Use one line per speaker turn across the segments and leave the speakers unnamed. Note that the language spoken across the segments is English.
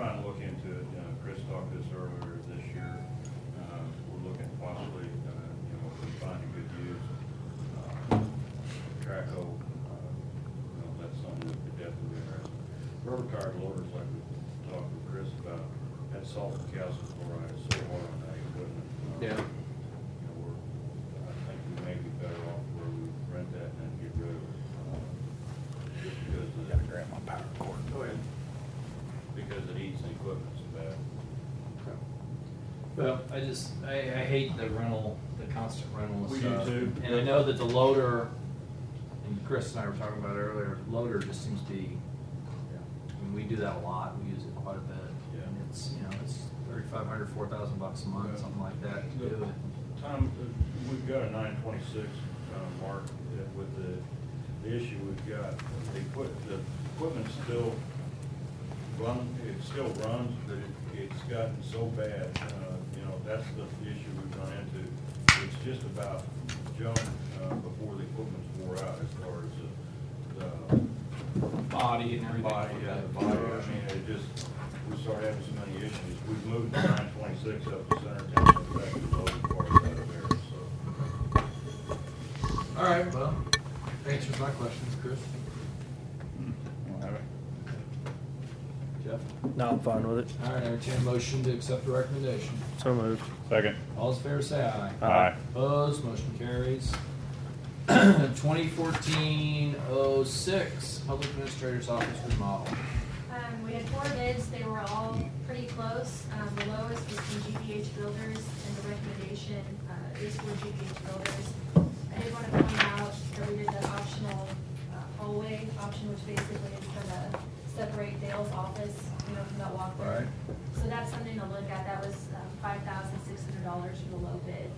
to it. Uh, Chris talked this earlier this year. Uh, We're looking possibly, uh, you know, if we find a good use. uh, Traco, uh, you know, that's something that could definitely be interesting. Rubber tire loaders, like we talked with Chris about, had sulfur calcium chloride, it's so hard on that equipment. Uh,
Yeah.
You know, we're, I think we may be better off where we rent that and then get rid of it. uh, Just because of the
grab my power cord.
Go ahead. Because it eats the equipment so bad.
Well, I just, I, I hate the rental, the constant rental
We do
stuff.
too.
And I know that the loader, and Chris and I were talking about it earlier, loader just seems to be, I mean, we do that a lot, we use it quite a bit.
Yeah.
And it's, you know, it's thirty-five hundred, four thousand bucks a month,
Yeah.
something like that to
The-
do it.
Tom, uh, we've got a nine twenty-six, uh, mark uh, with the, the issue we've got, the equip, the equipment's still run, it still runs, but it, it's gotten so bad, uh, you know, that's the issue we've run into. It's just about junk, uh, before the equipment's wore out as far as the, the
Body and everything.
Body,
like
yeah,
that.
uh, the body, I mean, it just, we started having so many issues, we've moved the nine twenty-six up to center town, and back to the loading part out of there, so.
All right, well, answers my questions, Chris. Jeff?
No, I'm fine with it.
All right, entertain a motion to accept the recommendation.
So moved.
Second.
All those in favor say aye.
Aye.
Opposed, motion carries. 2014-06, Public Administrator's Office remodel.
Um, we had four bids, they were all pretty close. Um, the lowest was from GPH Builders, and the recommendation, uh, is for GPH Builders. I did wanna point out that we did the optional uh, hallway option, which basically is gonna separate Dale's office, you know, from that walkway.
Right.
So that's something to look at, that was, um, five thousand six hundred dollars for the low bid.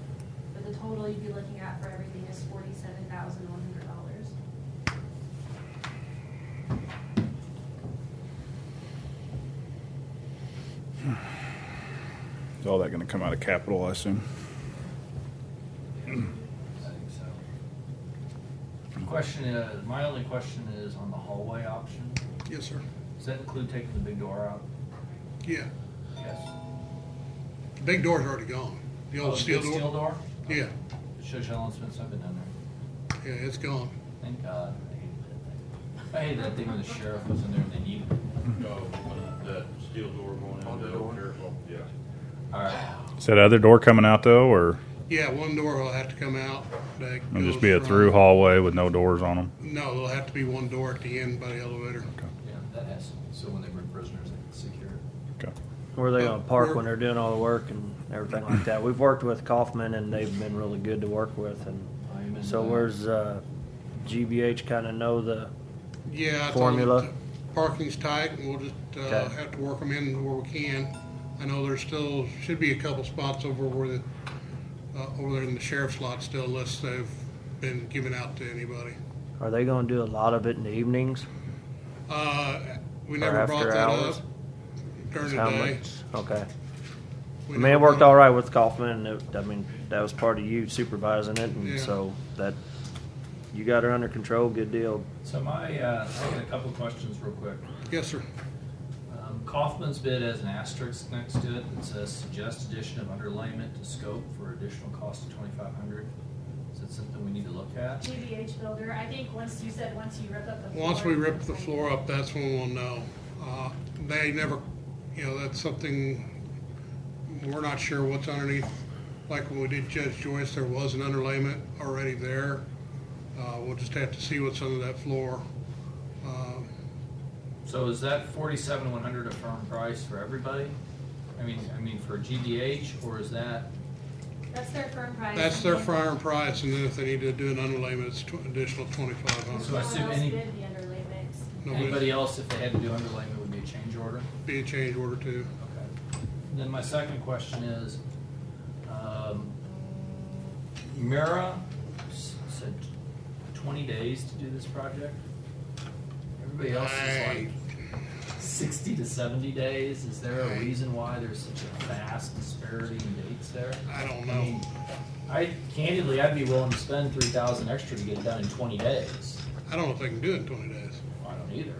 But the total you'd be looking at for everything is forty-seven thousand one hundred dollars.
Is all that gonna come out of capital, I assume?
I think so. Question is, my only question is on the hallway option.
Yes, sir.
Does that include taking the big door out?
Yeah,
Yes.
the big door's already gone. The
Oh,
old steel
big Steel
door.
door?
Yeah,
It shows how long it's been since I've been down there.
yeah, it's gone.
Thank God. I hated that thing. I hated that thing when the sheriff was in there and they needed.
No, when uh, that steel door going in.
On the
uh,
door?
careful, Yeah.
All right.
Is that other door coming out though, or
Yeah, one door will have to come out. that
it'll just
goes
be a
from-
through hallway with no doors on them?
No, there'll have to be one door at the end by the elevator.
Yeah, that has, so when they bring prisoners, they can secure it.
Okay.
Where they gonna park when they're doing all the work and everything like that? We've worked with Kaufman and they've been really good to work with
Amen.
and so where's, uh, GBH kinda know the,
Yeah. I told them
Formula.
t- Parking's tight and we'll just, uh,
Okay.
have to work them in where we can. I know there's still, should be a couple spots over where the, uh, over there in the sheriff's lot still unless they've been given out to anybody.
are they gonna do a lot of it in the evenings?
Uh, we
Or
never brought
after
that up
hours?
during the
How
day.
much? Okay. I
We
mean,
never
it worked
brought-
all right with Kaufman and it, I mean, that was part of you supervising it
Yeah.
and so that, you got her under control, good deal.
So my, uh, I got a couple questions real quick.
Yes, sir.
Um, Kaufman's bid has an asterisk next to it that says suggest addition of underlayment to scope for additional cost of twenty-five hundred. Is that something we need to look at?
GBH Builder, I think once you said, once you rip up the floor.
Once we rip the floor up, that's when we'll know. Uh, They never, you know, that's something, we're not sure what's underneath. Like when we did Judge Joyce, there was an underlayment already there. Uh, We'll just have to see what's under that floor. Um,
So is that forty-seven one hundred a firm price for everybody? I mean, I mean for GDH, or is that,
That's their firm price.
That's their fair price, and then if they need to do an underlayment, it's tw- additional twenty-five
So
hundred.
I
No
assume
one else
any-
did the underlayments.
anybody else, if they had to do underlayment, would be a change order?
Be a change order too.
Okay. Then my second question is, um, Mira s- said twenty days to do this project. Everybody else is like sixty to seventy days. Is there a
Right.
reason why there's such a vast disparity in dates there?
I don't
I
know.
mean, I candidly, I'd be willing to spend three thousand extra to get it done in twenty days.
I don't know if they can do it in twenty days.
I don't either,